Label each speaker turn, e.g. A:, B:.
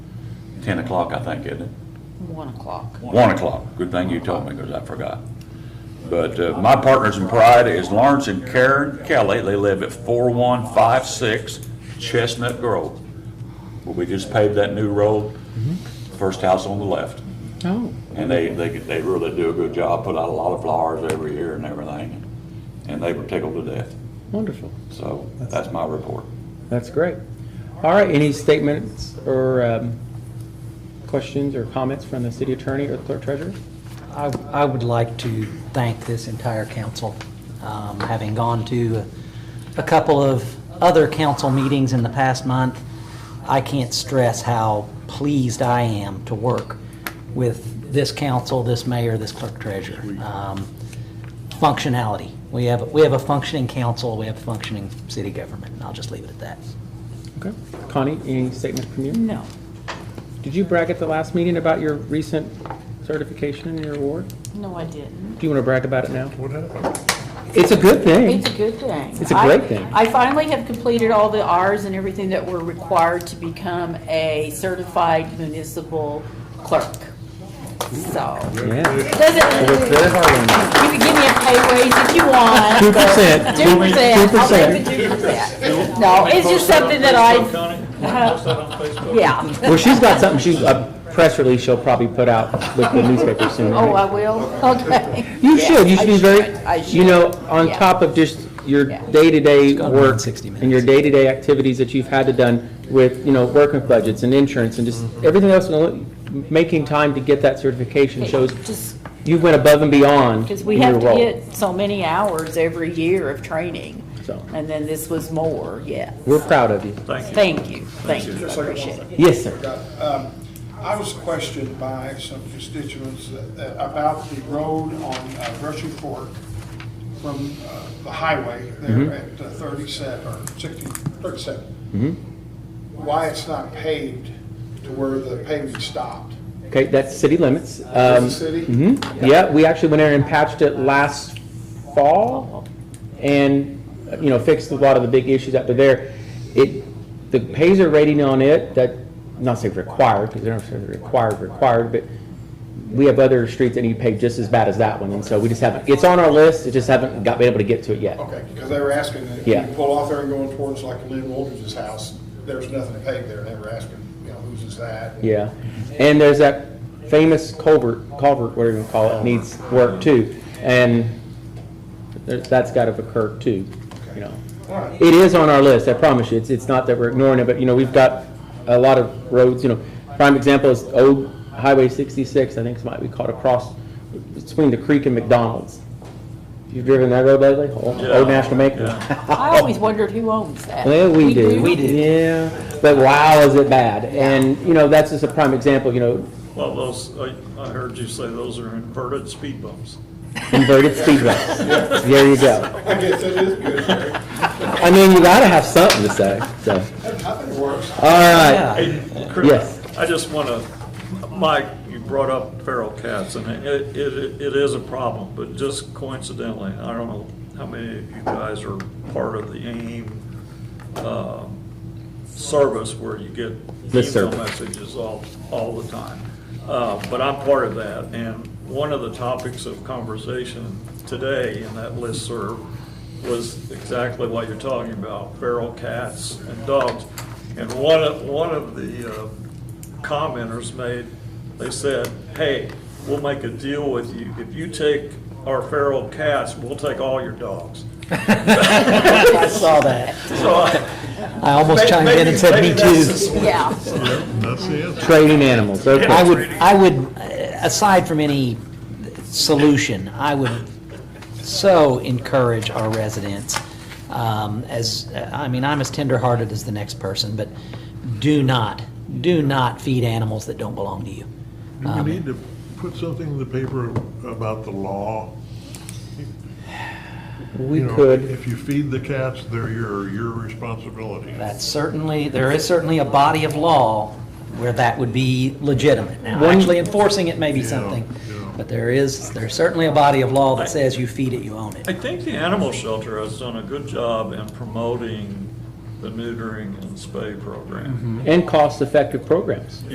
A: 10 o'clock, I think, isn't it?
B: One o'clock.
A: 1 o'clock. Good thing you told me, because I forgot. But uh, my partners in pride is Lawrence and Karen Kelly. They live at 4156 Chestnut Grove. Well, we just paved that new road, first house on the left.
B: Oh.
A: And they, they, they really do a good job, put out a lot of flowers every year and everything. And they were tickled to death.
C: Wonderful.
A: So that's my report.
C: That's great. All right, any statements or um, questions or comments from the city attorney or clerk treasurer?
D: I, I would like to thank this entire council. Um, Having gone to a couple of other council meetings in the past month, I can't stress how pleased I am to work with this council, this mayor, this clerk treasurer. Um, Functionality. We have, we have a functioning council, we have functioning city government, and I'll just leave it at that.
C: Okay. Connie, any statement from you?
B: No,
C: Did you brag at the last meeting about your recent certification and your award?
B: no, I didn't.
C: Do you want to brag about it now?
E: What happened?
C: It's a good thing.
B: It's a good thing.
C: It's a
B: I-
C: great thing.
B: I finally have completed all the Rs and everything that were required to become a certified municipal clerk. So,
C: Yeah.
B: doesn't,
C: Very hard one.
B: you can give me a pay raise if you want.
C: Two percent.
B: Two percent, I'll take
C: 2%.
B: the two percent. No, it's just something that
E: Post that
B: I,
E: on Facebook, Connie? Post that on Facebook?
B: yeah.
C: Well, she's got something, she's, a press release she'll probably put out with the newspaper soon.
B: Oh, I
C: right?
B: will, okay.
C: You should, you should be
B: I
C: very, you
B: should.
C: know, on
B: Yeah.
C: top of just your
B: Yeah.
C: day-to-day
D: gone around
C: work
D: 60 minutes.
C: and your day-to-day activities that you've had to done with, you know, working with budgets and insurance and just
D: Mm-hmm.
C: everything else, making time to get that certification shows
B: Just
C: you went above and beyond
B: Because we
C: in your
B: have to
C: role.
B: get so many hours every year of training,
C: So,
B: and then this was more, yeah.
C: we're proud of you.
E: Thank you.
B: Thank you, thank you, I appreciate it.
C: Yes, sir.
F: Um, I was questioned by some constituents that- that- about the road on uh, Brushy Fork from uh, the highway there at uh, 37, or 60, 37. Why it's not paved to where the paving stopped.
C: Okay, that's city limits.
F: Is
C: Um,
F: the city,
C: hmm yeah, we actually went in and patched it last fall and, you know, fixed a lot of the big issues up to there. It, the Pazer rating on it, that, not say required, because they're not saying required, required, but we have other streets that need paved just as bad as that one, and so we just haven't, it's on our list, it just haven't got, been able to get to it yet.
F: okay, because they were asking, that if
C: Yeah.
F: you pull off there and going towards like Lynn Wooldridge's house, there's nothing to pave there, and they were asking, you know, whose is that?
C: Yeah, and there's that famous culvert, culvert, whatever you call it, needs work too, and there- that's got to occur too, you know.
F: All right.
C: It is on our list, I promise you, it's, it's not that we're ignoring it, but, you know, we've got a lot of roads, you know, prime example is old Highway sixty-six, I think it might be called across between the creek and McDonald's. You've driven that road lately, old Old National Maker?
B: I always wondered who owns that.
C: Well, we do.
D: We do.
C: Yeah, but wow, is it bad, and, you know, that's just a prime example, you know,
E: Well, those, I, I heard you say those are inverted speed bumps.
C: Inverted speed bumps. There you go.
F: I guess it is good, Jerry.
C: I mean, you gotta have something to say, so.
F: I think it works.
C: All right.
D: Yeah.
E: Hey, Chris,
C: Yes.
E: I just want to, Mike, you brought up feral cats, and it, it, it is a problem, but just coincidentally, I don't know how many of you guys are part of the AIM, um, service where you get
C: This
E: email
C: service.
E: messages all, all the time. Uh, but I'm part of that, and one of the topics of conversation today in that listserv was exactly what you're talking about, feral cats and dogs. And one of, one of the uh, commenters made, they said, hey, we'll make a deal with you. If you take our feral cats, we'll take all your dogs.
D: I saw that.
E: So I
D: I almost chimed in and said, me
E: Maybe that's the
D: too.
E: solution.
B: Yeah.
E: That's the answer.
C: Trading animals,
D: I
C: okay.
D: would, I would, uh, aside from any solution, I would so encourage our residents, um, as, I mean, I'm as tenderhearted as the next person, but do not, do not feed animals that don't belong to you.
G: Do we need to put something in the paper about the law?
C: We
G: You know,
C: could,
G: If you feed the cats, they're your, your responsibility.
D: That's certainly, there is certainly a body of law where that would be legitimate. Now,
C: One-
D: actually enforcing it may be
G: Yeah,
D: something,
G: yeah.
D: but there is, there's certainly a body of law that says you feed it, you own it.
E: I think the animal shelter has done a good job in promoting the neutering and spay program.
C: and cost-effective programs.